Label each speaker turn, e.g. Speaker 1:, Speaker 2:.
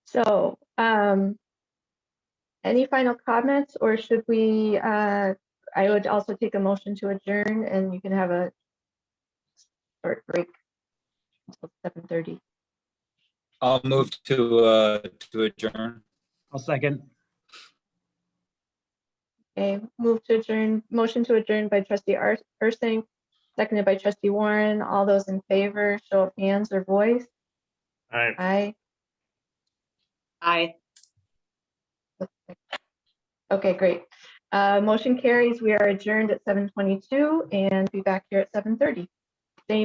Speaker 1: So, um, any final comments or should we, uh, I would also take a motion to adjourn and you can have a short break until seven thirty.
Speaker 2: I'll move to, uh, to adjourn.
Speaker 3: I'll second.
Speaker 1: Okay, move to adjourn, motion to adjourn by trustee Ar- Ursink, seconded by trustee Warren. All those in favor, show of hands or voice.
Speaker 4: Aye.
Speaker 1: Aye.
Speaker 5: Aye.
Speaker 1: Okay, great. Uh, motion carries. We are adjourned at seven twenty-two and be back here at seven thirty.